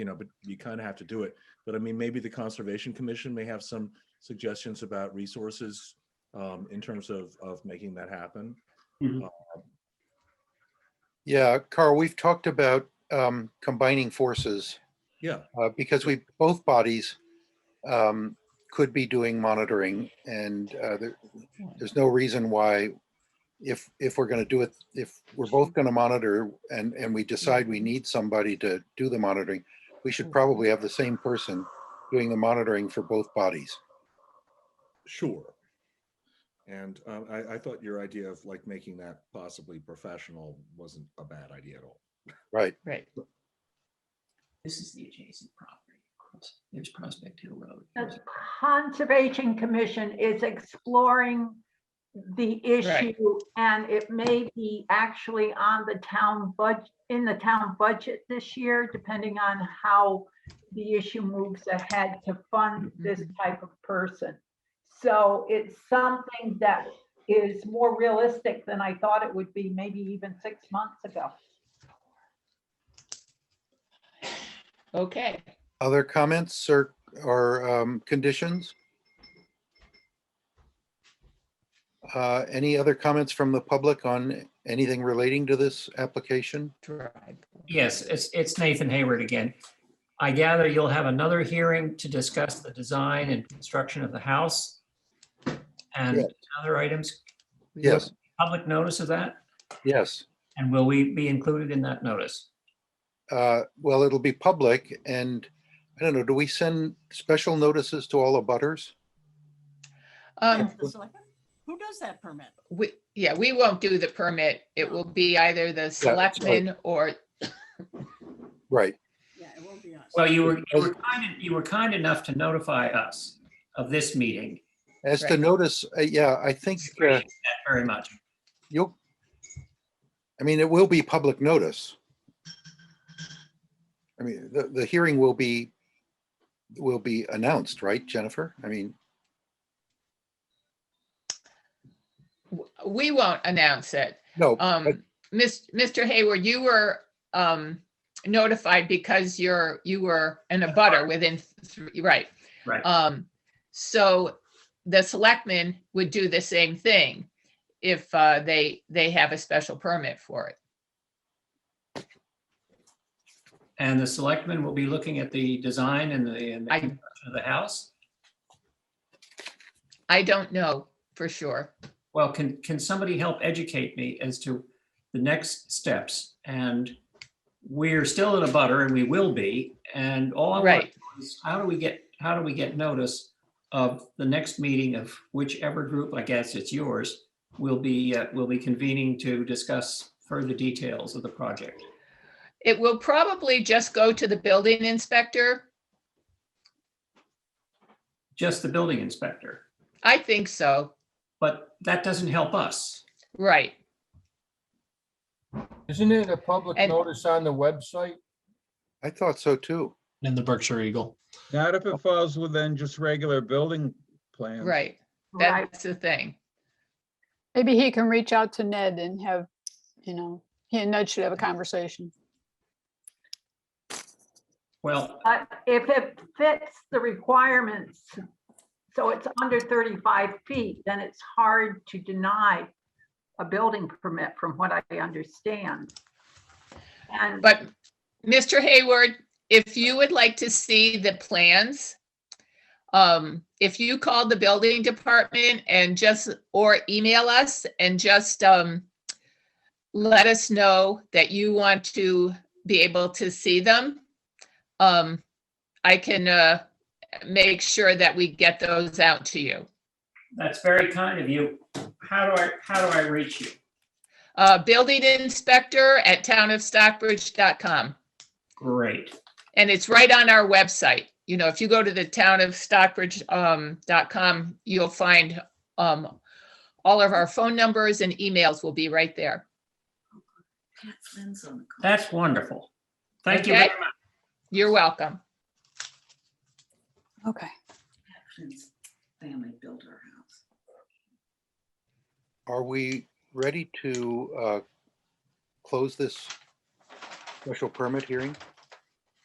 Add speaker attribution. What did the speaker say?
Speaker 1: you know, but you kind of have to do it. But I mean, maybe the Conservation Commission may have some suggestions about resources um, in terms of, of making that happen.
Speaker 2: Mhm.
Speaker 3: Yeah, Carl, we've talked about um, combining forces
Speaker 1: Yeah,
Speaker 3: uh, because we, both bodies um, could be doing monitoring and uh, there, there's no reason why if, if we're going to do it, if we're both going to monitor and, and we decide we need somebody to do the monitoring, we should probably have the same person doing the monitoring for both bodies.
Speaker 1: sure. And um, I, I thought your idea of like making that possibly professional wasn't a bad idea at all.
Speaker 3: Right.
Speaker 4: Right.
Speaker 2: This is the adjacent property. Cross- There's Prospect Hill Road.
Speaker 5: The Conservation Commission is exploring the issue and it may be actually on the town budget, in the town budget this year, depending on how the issue moves ahead to fund this type of person. So it's something that is more realistic than I thought it would be, maybe even six months ago.
Speaker 4: Okay,
Speaker 3: Other comments or, or um, conditions? Uh, Any other comments from the public on anything relating to this application?
Speaker 4: drive.
Speaker 2: Yes, it's, it's Nathan Hayward again. I gather you'll have another hearing to discuss the design and construction of the house and other items.
Speaker 3: Yes,
Speaker 2: Public notice of that?
Speaker 3: yes.
Speaker 2: And will we be included in that notice?
Speaker 3: Uh, Well, it'll be public and I don't know, do we send special notices to all the butters?
Speaker 4: Um,
Speaker 6: The selectmen? Who does that permit?
Speaker 4: we, yeah, we won't do the permit. It will be either the selectmen or,
Speaker 3: Right,
Speaker 6: Yeah, it won't be us.
Speaker 2: Well, you were, you were kind, you were kind enough to notify us of this meeting.
Speaker 3: as to
Speaker 4: Right.
Speaker 3: notice, uh, yeah, I think uh,
Speaker 2: Appreciate that Very much.
Speaker 3: you'll, I mean, it will be public notice. I mean, the, the hearing will be, will be announced, right, Jennifer? I mean,
Speaker 4: we won't announce it.
Speaker 3: no, but
Speaker 4: Um, Mis- Mr. Hayward, you were, um, notified because you're, you were in a butter within, three- right.
Speaker 2: Right.
Speaker 4: Um, so the selectmen would do the same thing if, uh, they, they have a special permit for it.
Speaker 2: And the selectmen will be looking at the design and the, and the
Speaker 4: I-
Speaker 2: construction of the house?
Speaker 4: I don't know for sure.
Speaker 2: Well, can, can somebody help educate me as to the next steps? And we're still in a butter and we will be, and all I want
Speaker 4: Right.
Speaker 2: to know is how do we get, how do we get notice of the next meeting of whichever group, I guess it's yours, will be, uh, will be convening to discuss further details of the project?
Speaker 4: It will probably just go to the building inspector.
Speaker 2: Just the building inspector,
Speaker 4: I think so.
Speaker 2: but that doesn't help us.
Speaker 4: Right.
Speaker 7: Isn't it a public
Speaker 4: And-
Speaker 7: notice on the website?
Speaker 3: I thought so too.
Speaker 8: in the Berkshire Eagle.
Speaker 9: Not if it falls within just regular building plans.
Speaker 4: Right.
Speaker 5: Right,
Speaker 4: That's the thing.
Speaker 10: Maybe he can reach out to Ned and have, you know, he and Ned should have a conversation.
Speaker 2: Well,
Speaker 5: but Uh, if it fits the requirements, so it's under 35 feet, then it's hard to deny a building permit from what I understand. And
Speaker 4: But Mr. Hayward, if you would like to see the plans, um, if you call the building department and just, or email us and just, um, let us know that you want to be able to see them, um, I can, uh, make sure that we get those out to you.
Speaker 2: that's very kind of you. How do I, how do I reach you?
Speaker 4: Uh, building inspector at townofstockbridge.com.
Speaker 2: Great.
Speaker 4: And it's right on our website. You know, if you go to the town of Stockbridge, um, dot com, you'll find, um, all of our phone numbers and emails will be right there.
Speaker 6: Pat Flynn's on the call.
Speaker 2: That's wonderful. Thank you.
Speaker 4: Okay.
Speaker 2: very much.
Speaker 4: You're welcome.
Speaker 10: Okay.
Speaker 6: Pat Flynn's family built our house.
Speaker 3: Are we ready to uh, close this special permit hearing?